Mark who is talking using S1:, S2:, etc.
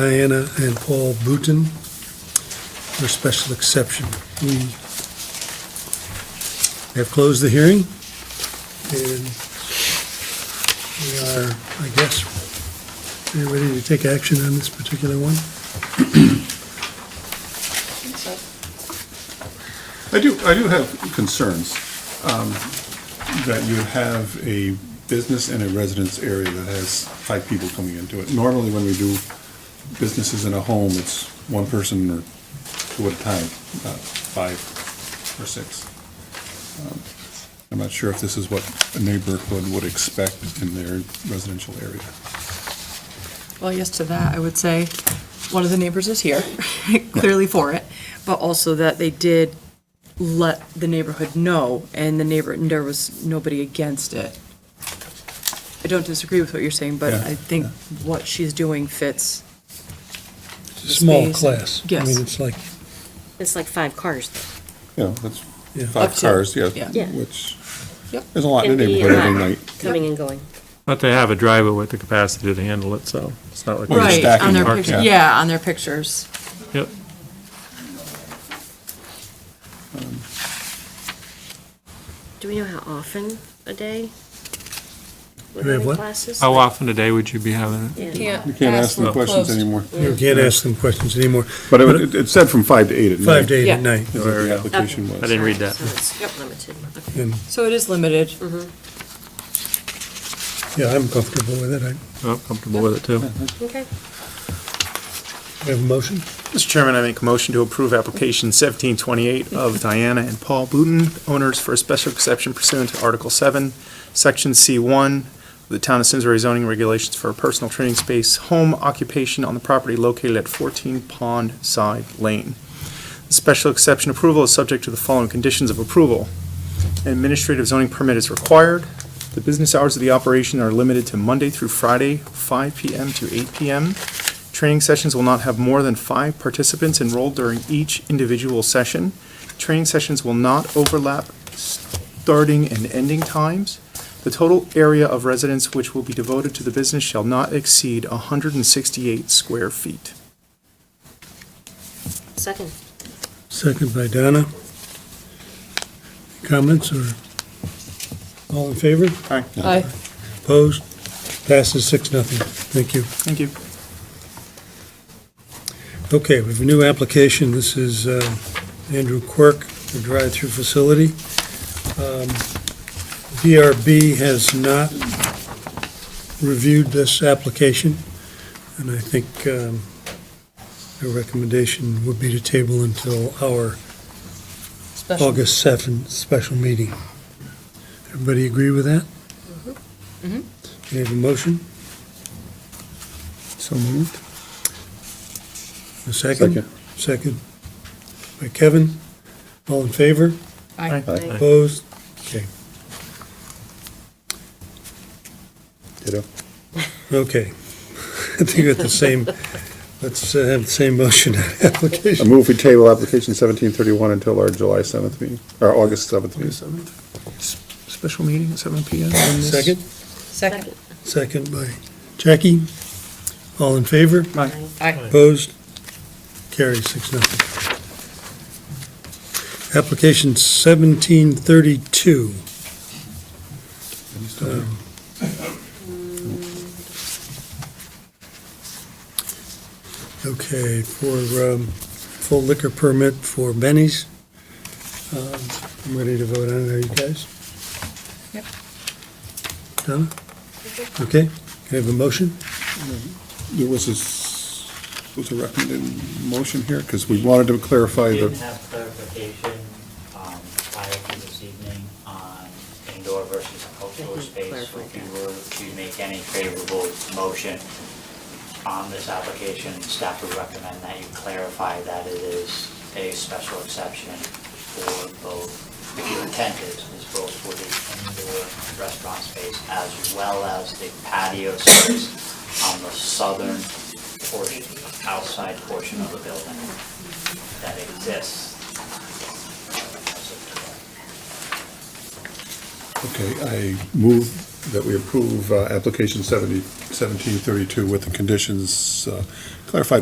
S1: Diana and Paul Booton for special exception. We have closed the hearing, and we are, I guess, we are ready to take action on this particular one?
S2: I do, I do have concerns um, that you have a business and a residence area that has five people coming into it. Normally, when we do businesses in a home, it's one person or two at a time, not five or six. Um, I'm not sure if this is what a neighborhood would expect in their residential area.
S3: Well, yes to that, I would say, one of the neighbors is here, clearly for it, but also that they did let the neighborhood know, and the neighbor, and there was nobody against it. I don't disagree with what you're saying, but
S2: Yeah,
S3: I think what she's doing fits.
S1: It's a Small
S3: Space.
S1: class. I
S3: Yes.
S1: mean, it's like,
S4: It's like five cars.
S2: You know, that's
S1: Yeah.
S2: five
S3: Up to-
S2: cars,
S3: yeah.
S2: yeah,
S4: Yeah.
S2: which,
S3: Yep.
S2: there's a lot in
S4: Can
S2: the
S4: be,
S2: neighborhood every
S4: uh,
S2: night.
S4: Coming and going.
S5: But they have a driver with the capacity to handle it, so it's not like.
S2: Well, you're
S3: Right, on
S2: stacking
S3: their
S2: them,
S3: picture,
S2: yeah.
S3: yeah, on their pictures.
S5: Yep.
S4: Do we know how often a day? we're
S1: Do we have
S4: having
S1: what?
S4: Classes?
S5: How often a day would you be having it?
S4: Yeah.
S2: You can't ask them questions anymore.
S1: you can't ask them questions anymore.
S2: But it, it said from five to eight at night.
S1: Five to eight at
S3: Yeah.
S1: night.
S2: is what the application
S5: I
S2: was.
S5: didn't read that.
S4: So it's limited. Okay.
S1: And,
S3: So it is limited.
S1: yeah, I'm comfortable with it. I
S5: I'm Oh, comfortable with it, too.
S4: Okay.
S1: have a motion.
S6: Mr. Chairman, I make a motion to approve application 1728 of Diana and Paul Booton, owners for a special exception pursuant to Article 7, Section C1, of the Town of Simsbury zoning regulations for a personal training space, home occupation on the property located at 14 Pond Side Lane. The Special exception approval is subject to the following conditions of approval. An administrative zoning permit is required. The business hours of the operation are limited to Monday through Friday, 5 PM to 8 PM. Training sessions will not have more than five participants enrolled during each individual session. Training sessions will not overlap starting and ending times. The total area of residence which will be devoted to the business shall not exceed 168 square feet.
S4: Second.
S1: Second by Donna. Comments or all in favor?
S6: All right,
S3: Aye.
S1: Opposed? Passes six, nothing. Thank you.
S6: thank you.
S1: Okay, we have a new application. This is uh, Andrew Quirk, the drive-through facility. Um, DRB has not reviewed this application, and I think um, their recommendation would be to table until our
S3: Special.
S1: August 7th special meeting. Everybody agree with that?
S3: Mhm.
S1: We have a motion,
S2: So moved.
S1: a second? Second. By Kevin, all in favor?
S3: Aye.
S2: Aye.
S1: Opposed? Okay,
S2: Ditto.
S1: okay. I think we got the same, let's uh, have the same motion on
S2: I
S1: application.
S2: move we table application seventeen thirty-one until our July seventh meeting, or August seventh meeting.
S6: 7th, special meeting at 7 PM. on this-
S1: Second?
S3: Second.
S1: Second by Jackie. All in favor?
S6: Aye.
S3: Aye.
S1: Opposed? Carries six, nothing. Application 1732. Um, Um, Okay, for um, full liquor permit for Benny's. Um, I'm ready to vote on it, are you guys?
S3: Yep.
S1: Donna? Okay, can I have a motion?
S2: There was a, s- was a recommended motion here, because we wanted to clarify
S7: We didn't
S2: the,
S7: have clarification um, prior to this evening on indoor versus outdoor
S4: Mhm,
S7: space. So
S4: clarified
S7: If you were to make any favorable motion on this application, staff would recommend that you clarify that it is a special exception for both, if your intent is, is both for the indoor restaurant space as well as the patio space on the southern portion, outside portion of the building that exists.
S2: okay, I move that we approve uh, application seventy, 1732 with the conditions uh, clarified